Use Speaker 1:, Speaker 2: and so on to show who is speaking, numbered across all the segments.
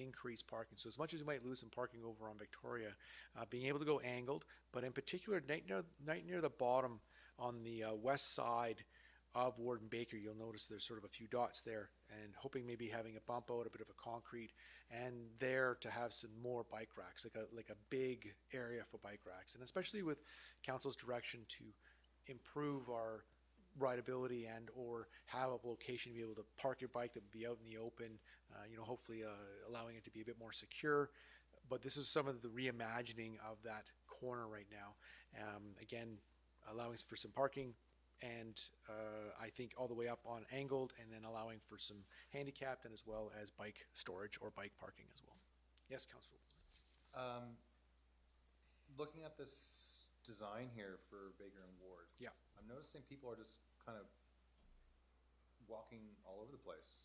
Speaker 1: increase parking. So as much as we might lose some parking over on Victoria, uh, being able to go angled, but in particular, right near, right near the bottom on the uh, west side of Warden Baker, you'll notice there's sort of a few dots there and hoping maybe having a bump out, a bit of a concrete, and there to have some more bike racks, like a, like a big area for bike racks. And especially with council's direction to improve our rideability and or have a location to be able to park your bike that would be out in the open, uh, you know, hopefully uh, allowing it to be a bit more secure. But this is some of the reimagining of that corner right now. Um, again, allowing for some parking and uh, I think all the way up on angled and then allowing for some handicapped and as well as bike storage or bike parking as well. Yes, Council.
Speaker 2: Um, looking at this design here for Baker and Ward.
Speaker 1: Yeah.
Speaker 2: I'm noticing people are just kind of walking all over the place.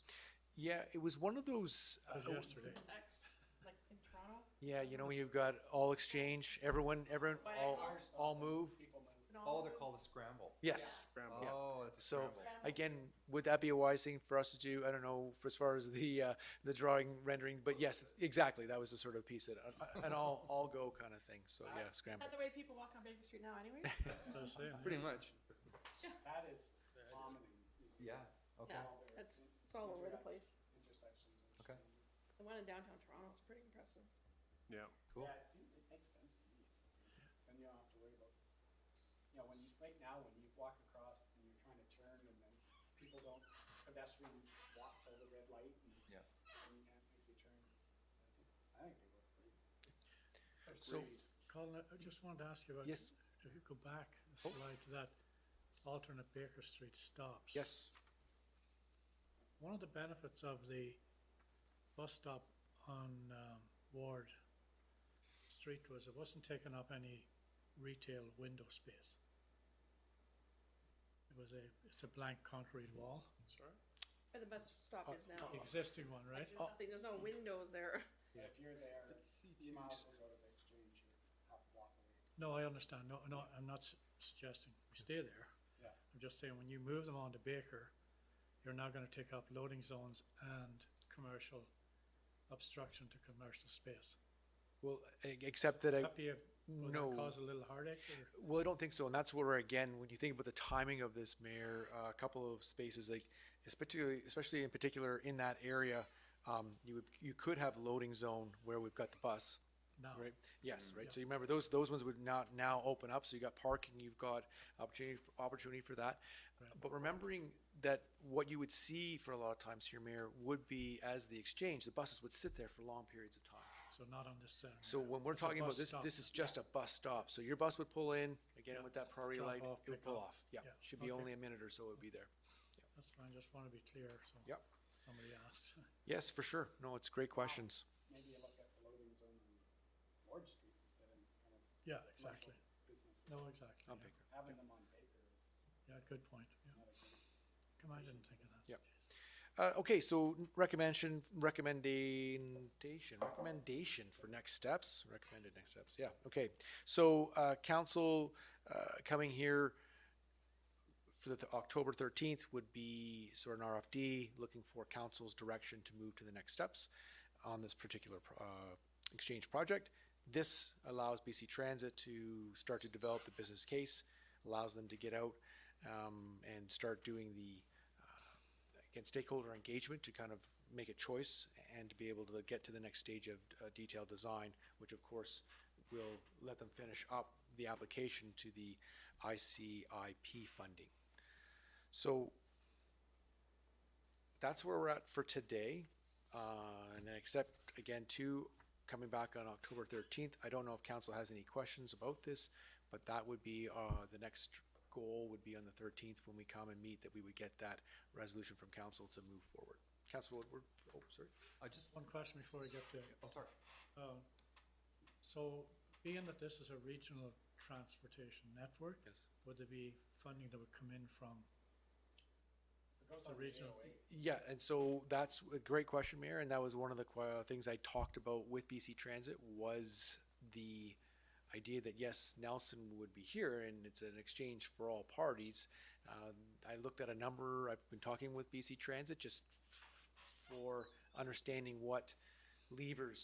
Speaker 1: Yeah, it was one of those. uh,
Speaker 3: yesterday.
Speaker 4: X, like in Toronto,
Speaker 1: yeah, you know, when you've got all exchange, everyone, everyone,
Speaker 4: By
Speaker 1: all,
Speaker 4: cars.
Speaker 1: all move.
Speaker 4: and all.
Speaker 2: Oh, they're called a scramble.
Speaker 1: Yes. Yeah.
Speaker 2: Oh, that's a
Speaker 1: So
Speaker 2: scramble.
Speaker 1: again, would that be a wise thing for us to do? I don't know for as far as the uh, the drawing rendering, but yes, exactly. That was the sort of piece that uh, an all all go kind of thing. So yeah,
Speaker 4: Is
Speaker 1: scramble.
Speaker 4: that the way people walk on Baker Street now anyway?
Speaker 3: That's what I'm saying.
Speaker 5: Pretty much.
Speaker 6: That is common in these
Speaker 2: Yeah, okay.
Speaker 4: Yeah, that's, it's all over the place.
Speaker 6: intersections. and
Speaker 2: Okay.
Speaker 6: changes.
Speaker 4: The one in downtown Toronto is pretty impressive.
Speaker 3: Yeah.
Speaker 2: Cool.
Speaker 6: Yeah, it seems, it makes sense to me. Then you don't have to worry about, you know, when you, right now, when you walk across and you're trying to turn and then people don't, pedestrians walk till the red light and
Speaker 2: Yeah.
Speaker 6: and you can't make your turn. I think- I think they work pretty.
Speaker 1: So-
Speaker 6: Agreed.
Speaker 3: Colin, I just wanted to ask you about.
Speaker 1: Yes. Oh.
Speaker 3: If you go back a slide to that alternate Baker Street stops.
Speaker 1: Yes.
Speaker 3: One of the benefits of the bus stop on um, Ward Street was it wasn't taking up any retail window space. It was a, it's a blank concrete wall. Sorry.
Speaker 4: Where the bus stop is now.
Speaker 3: Existing one, oh, right?
Speaker 4: There's nothing, there's no windows there.
Speaker 6: But if you're there,
Speaker 2: two.
Speaker 6: you might as well go to the exchange and have to walk away.
Speaker 3: No, I understand. No, no, I'm not s- suggesting we stay there.
Speaker 6: Yeah.
Speaker 3: I'm just saying, when you move them on to Baker, you're now gonna take up loading zones and commercial obstruction to commercial space.
Speaker 1: Well, e- except that I,
Speaker 3: That be a, will
Speaker 1: No.
Speaker 3: that cause a little heartache or?
Speaker 1: Well, I don't think so, and that's where again, when you think about the timing of this, Mayor, uh, a couple of spaces like, especially, especially in particular in that area, um, you would, you could have loading zone where we've got the bus,
Speaker 3: No.
Speaker 1: right?
Speaker 3: Mm,
Speaker 1: Yes, right. So you remember those those ones would not now open up. So you got parking, you've got opportunity for, opportunity for that. But remembering that what you would see for a lot of times here, Mayor, would be as the exchange, the buses would sit there for long periods of time.
Speaker 3: So not on this center.
Speaker 1: So when we're
Speaker 3: It's a
Speaker 1: talking about
Speaker 3: bus
Speaker 1: this,
Speaker 3: stop.
Speaker 1: this is just a bus stop. So your bus would pull in, again,
Speaker 3: Yeah.
Speaker 1: with that priority
Speaker 3: Drop
Speaker 1: light,
Speaker 3: off,
Speaker 1: it would
Speaker 3: pick
Speaker 1: pull
Speaker 3: up.
Speaker 1: off. Yeah,
Speaker 3: Yeah.
Speaker 1: should be
Speaker 3: Okay.
Speaker 1: only a minute or so it would be there.
Speaker 3: That's fine, just wanna be clear, so.
Speaker 1: Yep.
Speaker 3: Somebody asked.
Speaker 1: Yes, for sure. No, it's great questions.
Speaker 6: Maybe you look at the loading zone on Ward Street instead of kind of
Speaker 3: Yeah,
Speaker 6: commercial
Speaker 3: exactly.
Speaker 6: Businesses.
Speaker 3: No, exactly.
Speaker 1: I'll
Speaker 3: yeah.
Speaker 1: pick her.
Speaker 6: Having them on Baker is
Speaker 3: Yeah, good point. Yeah.
Speaker 6: not a good.
Speaker 3: Come on, I didn't think of that.
Speaker 1: Yeah. Uh, okay, so recommendation, recommendation, recommendation for next steps, recommended next steps. Yeah, okay. So uh, council uh, coming here for the th- October 13th would be sort of an RFD looking for council's direction to move to the next steps on this particular pro- uh, exchange project. This allows BC Transit to start to develop the business case, allows them to get out um, and start doing the again, stakeholder engagement to kind of make a choice and to be able to get to the next stage of uh, detailed design, which of course will let them finish up the application to the ICIP funding. So that's where we're at for today. Uh, and then except again, two coming back on October 13th. I don't know if council has any questions about this, but that would be uh, the next goal would be on the 13th when we come and meet that we would get that resolution from council to move forward. Council Woodward, oh, sorry.
Speaker 2: I just,
Speaker 3: One question before we get to
Speaker 2: oh, sorry.
Speaker 3: Um, So being that this is a regional transportation network,
Speaker 1: Yes.
Speaker 3: would there be funding that would come in from?
Speaker 6: It goes
Speaker 3: The
Speaker 6: on the
Speaker 3: regional-
Speaker 6: 808.
Speaker 1: Yeah, and so that's a great question, Mayor, and that was one of the que- uh, things I talked about with BC Transit was the idea that yes, Nelson would be here, and it's an exchange for all parties. Um, I looked at a number. I've been talking with BC Transit just f- for understanding what levers